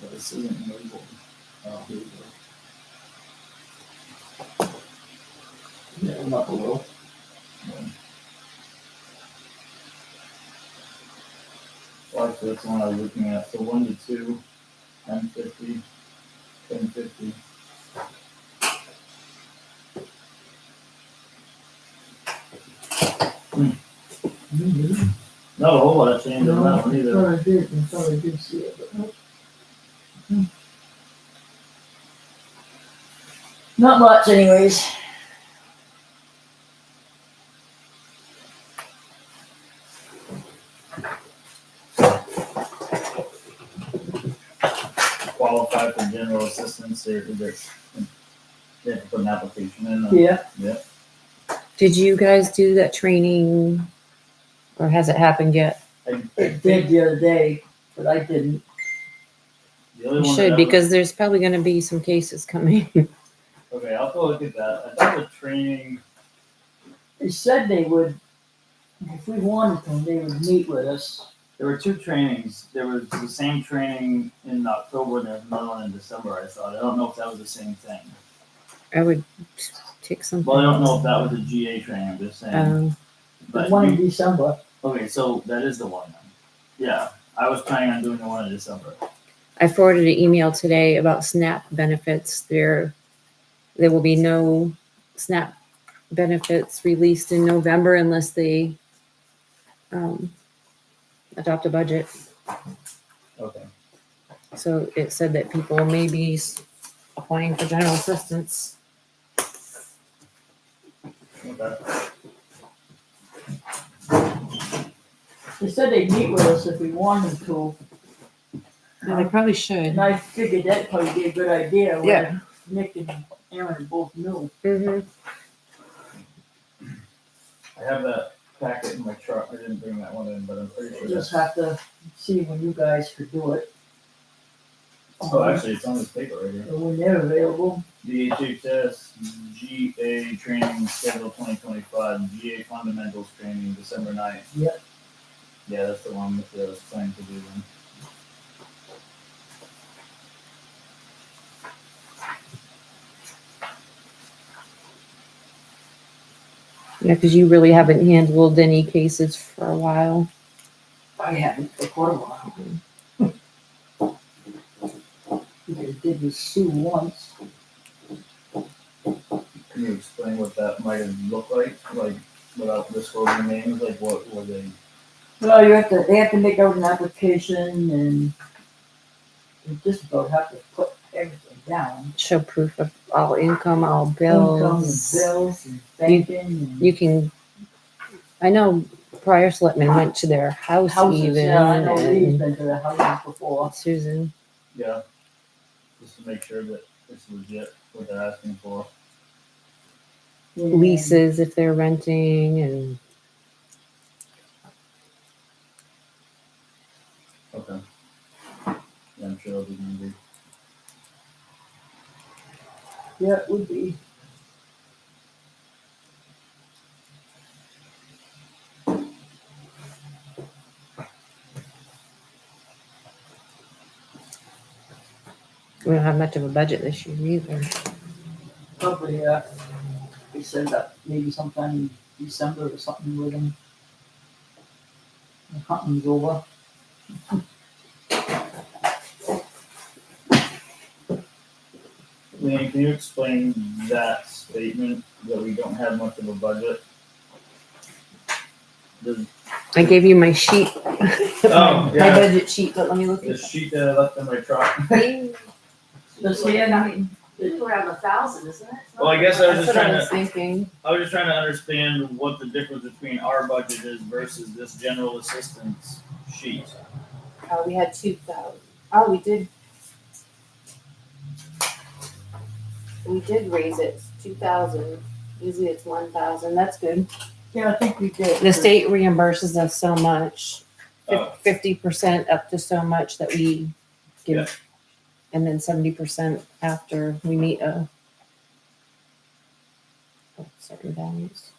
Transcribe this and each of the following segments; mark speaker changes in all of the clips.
Speaker 1: But this isn't labeled. Oh, here we go. Yeah, I'm up a little. Yeah. Like this one I was looking at, so one to two, ten fifty, ten fifty. Not a whole lot of change on that one
Speaker 2: I
Speaker 1: either.
Speaker 2: thought I did, I thought I did see it, but nope.
Speaker 3: Not much anyways.
Speaker 1: Qualify for general assistance, they, they, they have to put an application in. uh,
Speaker 2: Yeah.
Speaker 4: Did you guys do that training or has it happened yet?
Speaker 1: I- I
Speaker 2: It did
Speaker 1: think
Speaker 2: the other day, but I didn't.
Speaker 1: the only
Speaker 4: You
Speaker 1: one that
Speaker 4: should
Speaker 1: ever-
Speaker 4: because there's probably going to be some cases coming.
Speaker 1: Okay, I'll go look at that. I thought the training,
Speaker 2: They said they would, if we wanted them, they would meet with us.
Speaker 1: there were two trainings. There was the same training in October and there was another one in December, I thought. I don't know if that was the same thing.
Speaker 4: I would take some.
Speaker 1: Well, I don't know if that was a GA training, I'm just saying.
Speaker 4: Um,
Speaker 2: The
Speaker 1: But,
Speaker 2: Uh, one in
Speaker 1: you-
Speaker 2: December,
Speaker 1: okay, so that is the one then. Yeah, I was planning on doing the one in December.
Speaker 4: I forwarded an email today about SNAP benefits. There, there will be no SNAP benefits released in November unless they um, adopt a budget.
Speaker 1: Okay.
Speaker 4: So it said that people may be s- applying for general assistance.
Speaker 1: Okay.
Speaker 2: they said they'd meet with us if we wanted to.
Speaker 4: Yeah, they probably should.
Speaker 2: And I figured that probably be a good idea
Speaker 4: Yeah.
Speaker 2: when Nick and Aaron both knew.
Speaker 4: hmm
Speaker 1: I have that packet in my truck. I didn't bring that one in, but I'm pretty sure.
Speaker 2: We Just
Speaker 1: that's-
Speaker 2: have to see when you guys could do it.
Speaker 1: Oh, actually, it's on this paper right here.
Speaker 2: Or When they're available,
Speaker 1: DHHS GA training schedule twenty twenty-five, GA fundamentals training December ninth.
Speaker 2: Yep.
Speaker 1: Yeah, that's the one that I was planning to do then.
Speaker 4: Yeah, because you really haven't handled any cases for a while.
Speaker 2: I haven't for quite a while. They did with Sue once.
Speaker 1: Can you explain what that might have looked like, like without disclosing names, like what were they?
Speaker 2: Well, you have to, they have to make out an application and you just about have to put everything down.
Speaker 4: Show proof of all income, all
Speaker 2: Income and
Speaker 4: bills.
Speaker 2: bills and banking and.
Speaker 4: You can, I know prior selectmen went to their house
Speaker 2: Houses,
Speaker 4: even.
Speaker 2: yeah, I know we've
Speaker 4: and
Speaker 2: been to the houses before.
Speaker 4: Susan,
Speaker 1: Yeah. Just to make sure that it's legit what they're asking for.
Speaker 2: and-
Speaker 4: leases if they're renting and
Speaker 1: Okay. Yeah, I'm sure it'll be easy.
Speaker 2: Yeah, it would be.
Speaker 4: we don't have much of a budget this year either.
Speaker 2: probably, uh, they said that maybe sometime in December or something with them. The hunting's over.
Speaker 1: Leanne, can you explain that statement that we don't have much of a budget? The,
Speaker 4: I gave you my sheet.
Speaker 1: Oh,
Speaker 4: My
Speaker 1: yeah.
Speaker 4: budget sheet, but let me look
Speaker 1: the
Speaker 4: at
Speaker 1: sheet that I left in my truck.
Speaker 4: it.
Speaker 2: Just saying, I mean,
Speaker 3: It's around a thousand, isn't it?
Speaker 1: Well, I guess I was
Speaker 4: That's
Speaker 1: just
Speaker 4: what I
Speaker 1: trying
Speaker 4: was
Speaker 1: to,
Speaker 4: thinking.
Speaker 1: I was just trying to understand what the difference between our budget is versus this general assistance sheet.
Speaker 3: Uh, we had two thousand. Oh, we did. We did raise it two thousand. Usually it's one thousand. That's good.
Speaker 2: yeah, I think we did.
Speaker 4: The state reimburses us so much,
Speaker 1: Oh.
Speaker 4: fifty percent up to so much that we
Speaker 1: Yeah.
Speaker 4: give. And then seventy percent after we meet uh, a. a Certain values.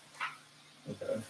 Speaker 1: Okay.